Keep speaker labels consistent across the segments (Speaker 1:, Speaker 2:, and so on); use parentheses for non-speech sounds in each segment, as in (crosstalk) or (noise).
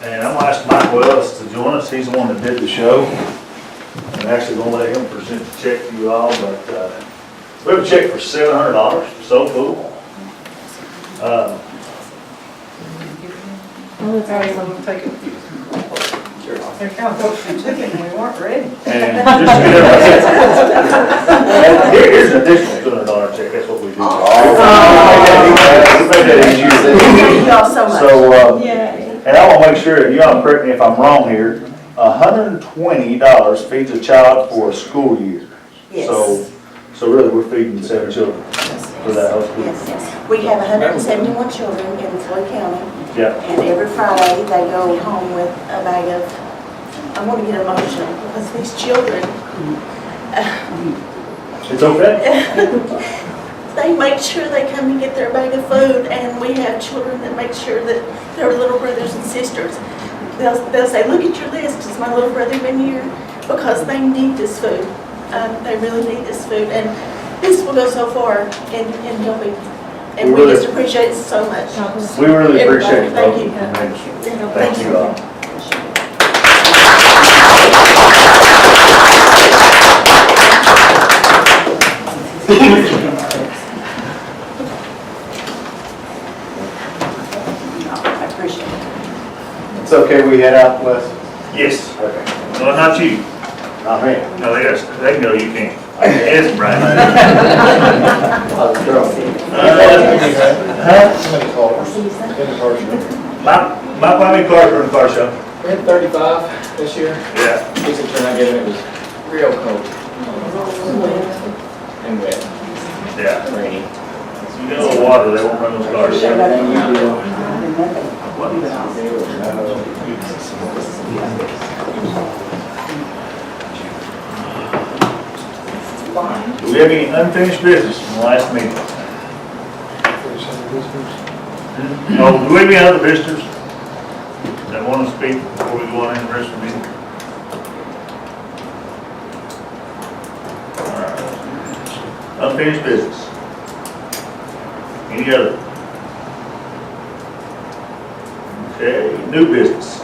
Speaker 1: And I'm gonna ask Mike Wells to join us, he's the one that did the show. I'm actually gonna let him present the check to you all, but, uh, we have a check for seven hundred dollars, so cool. Uh,
Speaker 2: Oh, it's
Speaker 3: Alright,
Speaker 2: awesome.
Speaker 3: so we'll take it. They're kind of hoping we took it and we weren't ready.
Speaker 1: And just to get our And here- here's an additional two hundred dollar check, that's what we do. We made that easy.
Speaker 3: Thank you all so much.
Speaker 1: So, uh,
Speaker 2: Yay.
Speaker 1: And I want to make sure, you all correct me if I'm wrong here, hundred and twenty dollars feeds a child for a school year. So,
Speaker 4: Yes.
Speaker 1: so really, we're feeding seven children for that whole school.
Speaker 4: Yes, yes. We have 171 children in Floyd County,
Speaker 1: Yeah,
Speaker 4: and every Friday, they go home with a bag of, I'm gonna get emotional, because these children,
Speaker 1: it's okay.
Speaker 4: (laughs) they make sure they come and get their bag of food, and we have children that make sure that their little brothers and sisters, they'll, they'll say, look at your list, has my little brother been here? Because they need this food, um, they really need this food, and this will go so far in, in helping, and we just appreciate it so much.
Speaker 1: We really appreciate it,
Speaker 4: Thank
Speaker 1: folks.
Speaker 4: you.
Speaker 1: Thank you all.
Speaker 4: I appreciate it.
Speaker 5: It's okay, we head out west?
Speaker 1: Yes,
Speaker 5: Okay.
Speaker 1: well, not you,
Speaker 5: Not me.
Speaker 1: no, they, got- they know you can't. Yes, Brian. (laughs)
Speaker 5: I'll throw it.
Speaker 1: Uh, huh?
Speaker 5: many cars? Many cars?
Speaker 1: My, my Bobby Carter and car show.
Speaker 5: We had thirty-five this year.
Speaker 1: Yeah,
Speaker 5: This is turn I gave it, it was real cold and wet,
Speaker 1: yeah.
Speaker 5: and rainy.
Speaker 1: You get a little water, they won't run those cars.
Speaker 5: Everything you do.
Speaker 1: Do we have any unfinished business from the last meeting? No, Oh, do we have any other visitors that want to speak before we go on in the rest of the meeting? All right. Unfinished business. Any other? Okay, new business.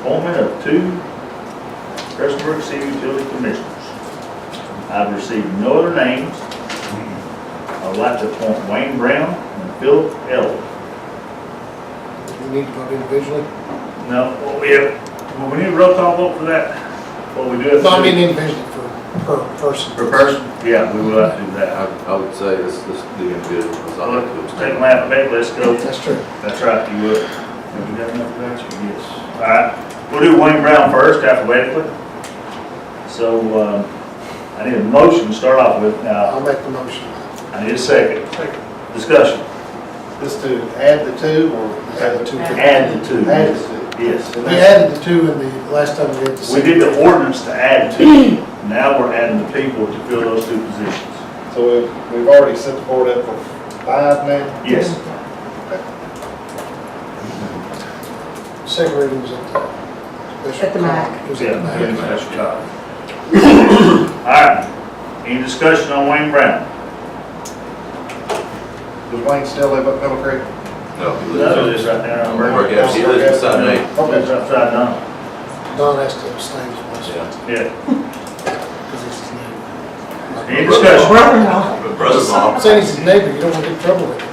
Speaker 1: Appointment of two Crestwood City Utility Commissioners. I've received no other names. I would like to appoint Wayne Brown and Philip Ellis.
Speaker 6: We need to vote individually?
Speaker 1: No, well, we have, well, we need a roll call vote for that. What we do have
Speaker 6: No, I mean
Speaker 1: to do.
Speaker 6: individually for, per person.
Speaker 1: For person? Yeah, we will have to do
Speaker 7: I,
Speaker 1: that.
Speaker 7: I would say this, this, the individual, because I like to
Speaker 1: Let's take
Speaker 7: abstain.
Speaker 1: them out of bed, let's go.
Speaker 6: That's true.
Speaker 1: That's right, you would. Have you done enough of that? Yes. All right, we'll do Wayne Brown first alphabetically. So, um, I need a motion to start off with. Now,
Speaker 6: I'll make the motion.
Speaker 1: I need a second.
Speaker 5: Second.
Speaker 1: Discussion.
Speaker 5: Just to add the two or?
Speaker 6: Add the two.
Speaker 1: Add the two.
Speaker 5: Add the
Speaker 1: Yes.
Speaker 6: We added the two in the, last time we did the.
Speaker 1: We did the ordinance to add to, now we're adding the people to fill those two positions.
Speaker 5: So we've, we've already set the board up for five now?
Speaker 1: Yes,
Speaker 6: Second reading was at the.
Speaker 3: At the MAC.
Speaker 6: It was
Speaker 1: yeah,
Speaker 6: at the MAC.
Speaker 1: that's right. All right, any discussion on Wayne Brown?
Speaker 5: Does Wayne still live up Middle Creek?
Speaker 7: No, he
Speaker 1: No,
Speaker 7: lives,
Speaker 1: this right there. on
Speaker 7: Where-
Speaker 1: Brown.
Speaker 7: where- yes, he lives in Southern Eight.
Speaker 5: Okay.
Speaker 1: That's upside down,
Speaker 6: Don has to abstain from this,
Speaker 7: Yeah.
Speaker 1: yeah.
Speaker 6: because it's his neighbor.
Speaker 1: Any discussion?
Speaker 7: But brother-in-law,
Speaker 6: Saying he's his neighbor, you don't want to get in trouble with him.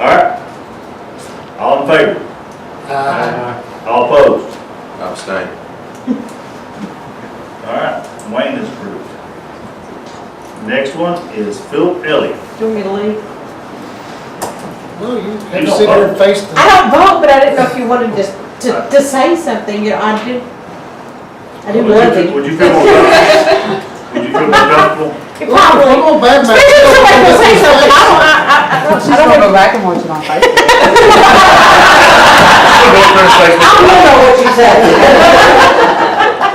Speaker 1: All right. All in favor?
Speaker 6: Uh,
Speaker 1: All opposed?
Speaker 7: abstain.
Speaker 1: All right, Wayne is approved. Next one is Philip Elliott.
Speaker 3: Do you want me to leave?
Speaker 6: No, you have
Speaker 1: You
Speaker 6: to
Speaker 1: don't
Speaker 6: sit there and face the,
Speaker 3: I don't vote, but I didn't know if you wanted to, to, to say something, you know, I do, I do
Speaker 1: Would you
Speaker 3: love
Speaker 1: feel-
Speaker 3: you.
Speaker 1: Would you feel more comfortable? Would you feel more comfortable?
Speaker 3: Probably.
Speaker 6: Come on, bad man.
Speaker 3: Especially if somebody will say something, I don't, I, I- I, don't- I don't. Go back and watch it on Facebook. I don't know what you said.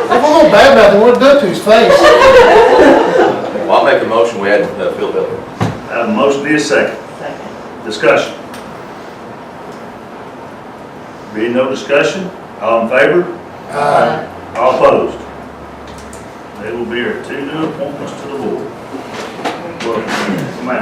Speaker 6: if I'm gonna bad mouth, then what do it to his face?
Speaker 7: Well, I'll make a motion, we add uh, Phil Biller.
Speaker 1: Have a motion, need a second. Discussion. Being no discussion, all in favor,
Speaker 6: Uh,
Speaker 1: all opposed. They will be our two new appointments to the board. Well, come out.